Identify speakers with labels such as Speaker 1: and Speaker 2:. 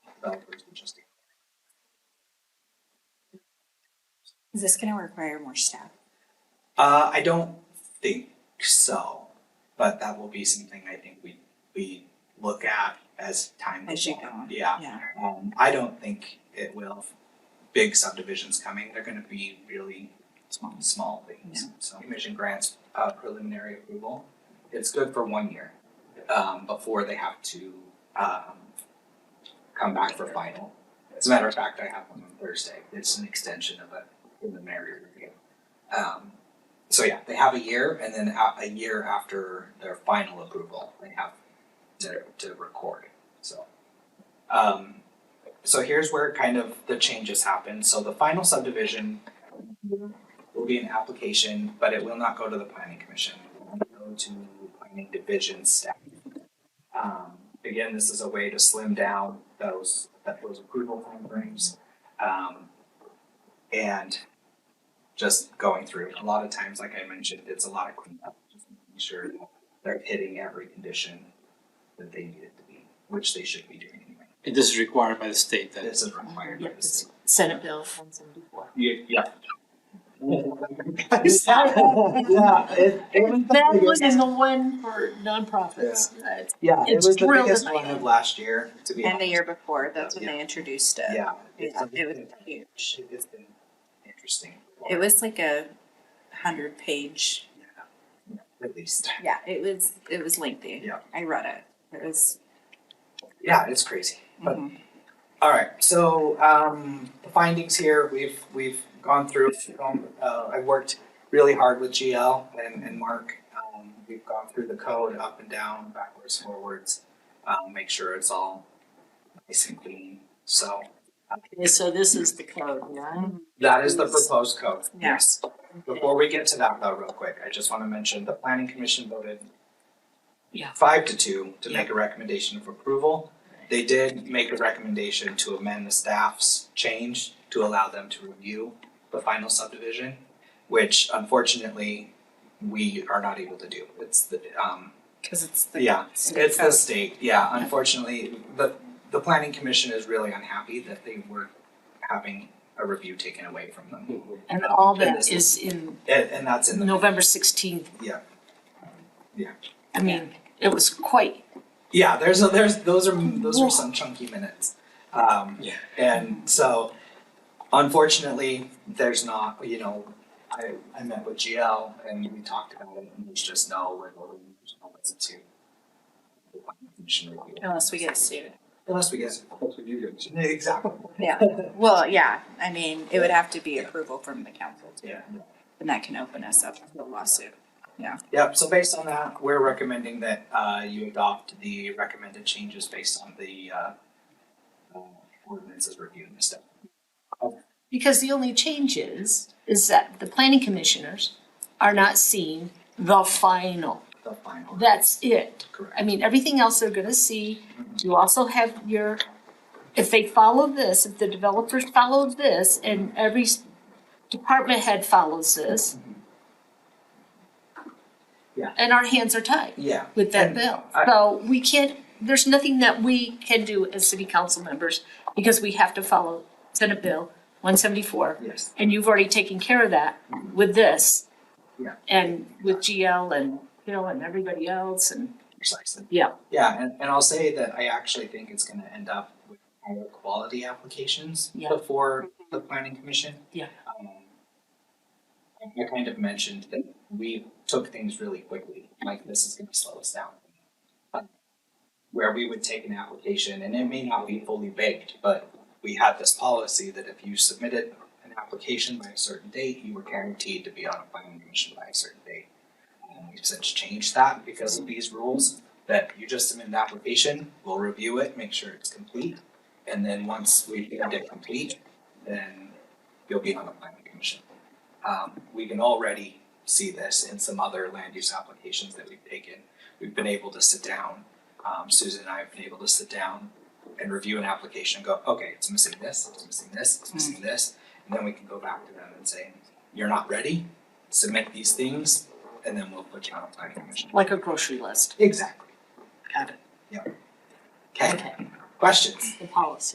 Speaker 1: Is this gonna require more staff?
Speaker 2: Uh, I don't think so, but that will be something I think we, we look at as time goes
Speaker 1: As you go
Speaker 2: on.
Speaker 1: on.
Speaker 2: Yeah,
Speaker 1: Yeah.
Speaker 2: um, I don't think it will, big subdivisions coming, they're gonna be really
Speaker 1: Small.
Speaker 2: small things. So commission grants uh, preliminary approval. It's good for one year um, before they have to um, come back for final. As a matter of fact, I have one on Thursday. It's an extension of a preliminary review. Um, so yeah, they have a year, and then a, a year after their final approval, they have to, to record. So. Um, so here's where kind of the changes happen. So the final subdivision will be an application, but it will not go to the planning commission. It will go to planning division staff. Um, again, this is a way to slim down those, that those approval timeframes. Um, and just going through, a lot of times, like I mentioned, it's a lot of cleanup, just making sure that they're hitting every condition that they need it to be, which they should be doing anyway.
Speaker 3: And this is required by the state that
Speaker 2: This is required by the state.
Speaker 1: Senate Bill one seventy-four.
Speaker 2: Ye- Yeah. Yeah, it, it was the
Speaker 4: That
Speaker 2: biggest-
Speaker 4: one is the one for nonprofits. Uh,
Speaker 2: yeah, it
Speaker 4: it's
Speaker 2: was the
Speaker 4: drilled
Speaker 2: biggest
Speaker 4: in my
Speaker 2: one of last year, to be
Speaker 1: And the
Speaker 2: honest.
Speaker 1: year before, that's when they introduced it.
Speaker 2: Yeah. it's
Speaker 1: Yeah,
Speaker 2: something
Speaker 1: it was
Speaker 2: that-
Speaker 1: huge.
Speaker 2: It's been interesting.
Speaker 1: It was like a hundred page,
Speaker 2: At least.
Speaker 1: yeah, it was, it was lengthy.
Speaker 2: Yeah.
Speaker 1: I read it, it was, mm-hmm.
Speaker 2: Yeah, it's crazy. But all right, so um, the findings here we've we've gone through. Um, uh, I worked really hard with GL and, and Mark. Um, we've gone through the code up and down, backwards, forwards, um, make sure it's all nice and clean. So
Speaker 4: Okay, so this is the code, yeah?
Speaker 2: that is the proposed code.
Speaker 1: Yeah.
Speaker 2: Yes. Before we get to that though, real quick, I just want to mention the planning commission voted
Speaker 4: Yeah.
Speaker 2: five to two to make a recommendation of approval. They did make a recommendation to amend the staff's change to allow them to review the final subdivision, which unfortunately we are not able to do. It's the um
Speaker 1: cause it's the.
Speaker 2: yeah,
Speaker 1: state
Speaker 2: it's the
Speaker 1: code.
Speaker 2: state. Yeah, unfortunately, the the planning commission is really unhappy that they were having a review taken away from them.
Speaker 4: And all
Speaker 2: And
Speaker 4: that
Speaker 2: this
Speaker 4: is in
Speaker 2: And, and that's in the
Speaker 4: November sixteenth.
Speaker 2: Yeah. Yeah.
Speaker 4: I mean, it was quite,
Speaker 2: Yeah, there's a, there's those are those are some chunky minutes. Um,
Speaker 3: Yeah.
Speaker 2: And so, unfortunately, there's not. You know, I I met with GL and we talked about it, and there's just no wiggle room. There's no listen to. the planning commission review.
Speaker 1: Unless we get sued.
Speaker 2: Unless we get exactly.
Speaker 1: Yeah, well, yeah, I mean, it would have to be approval from the council too.
Speaker 2: Yeah.
Speaker 1: And that can open us up to a lawsuit.
Speaker 2: Yep. So based on that, we're recommending that uh, you adopt the recommended changes based on the uh, uh, ordinances reviewed and stuff.
Speaker 4: because the only change is, is that the planning commissioners are not seeing the final.
Speaker 2: The final.
Speaker 4: That's it.
Speaker 2: correct.
Speaker 4: I mean, everything else they're gonna see, you also have your, if they follow this, if the developers follow this, and every s- department head follows this.
Speaker 2: Yeah.
Speaker 4: And our hands are tied
Speaker 2: Yeah.
Speaker 4: with that
Speaker 2: And
Speaker 4: bill,
Speaker 2: I-
Speaker 4: so we can't, there's nothing that we can do as city council members, because we have to follow Senate Bill one seventy-four,
Speaker 2: Yes.
Speaker 4: and you've already taken care of that with this.
Speaker 2: Yeah.
Speaker 4: And with GL and Bill and everybody else, and
Speaker 2: Precisely.
Speaker 4: Yeah.
Speaker 2: Yeah, and, and I'll say that I actually think it's gonna end up with higher quality applications
Speaker 4: Yeah. Mm-hmm.
Speaker 2: before the planning commission.
Speaker 4: Yeah.
Speaker 2: Um, I I kind of mentioned that we took things really quickly, like this is gonna slow us down. Um, Where we would take an application and it may not be fully baked, but we had this policy that if you submitted an application by a certain date, you were guaranteed to be on a planning commission by a certain date. And we've since changed that because of these rules that you just submit an application, we'll review it, make sure it's complete. And then once we get it complete, then you'll be on the planning commission. Um, we can already see this in some other land use applications that we've taken. We've been able to sit down, um, Susan and I have been able to sit down and review an application and go, okay, it's missing this, it's missing this, it's missing this. And then we can go back to them and say, you're not ready, submit these things, and then we'll put you on a planning commission.
Speaker 4: like a grocery list.
Speaker 2: Exactly.
Speaker 4: Got it.
Speaker 2: Okay, questions?
Speaker 4: The policy.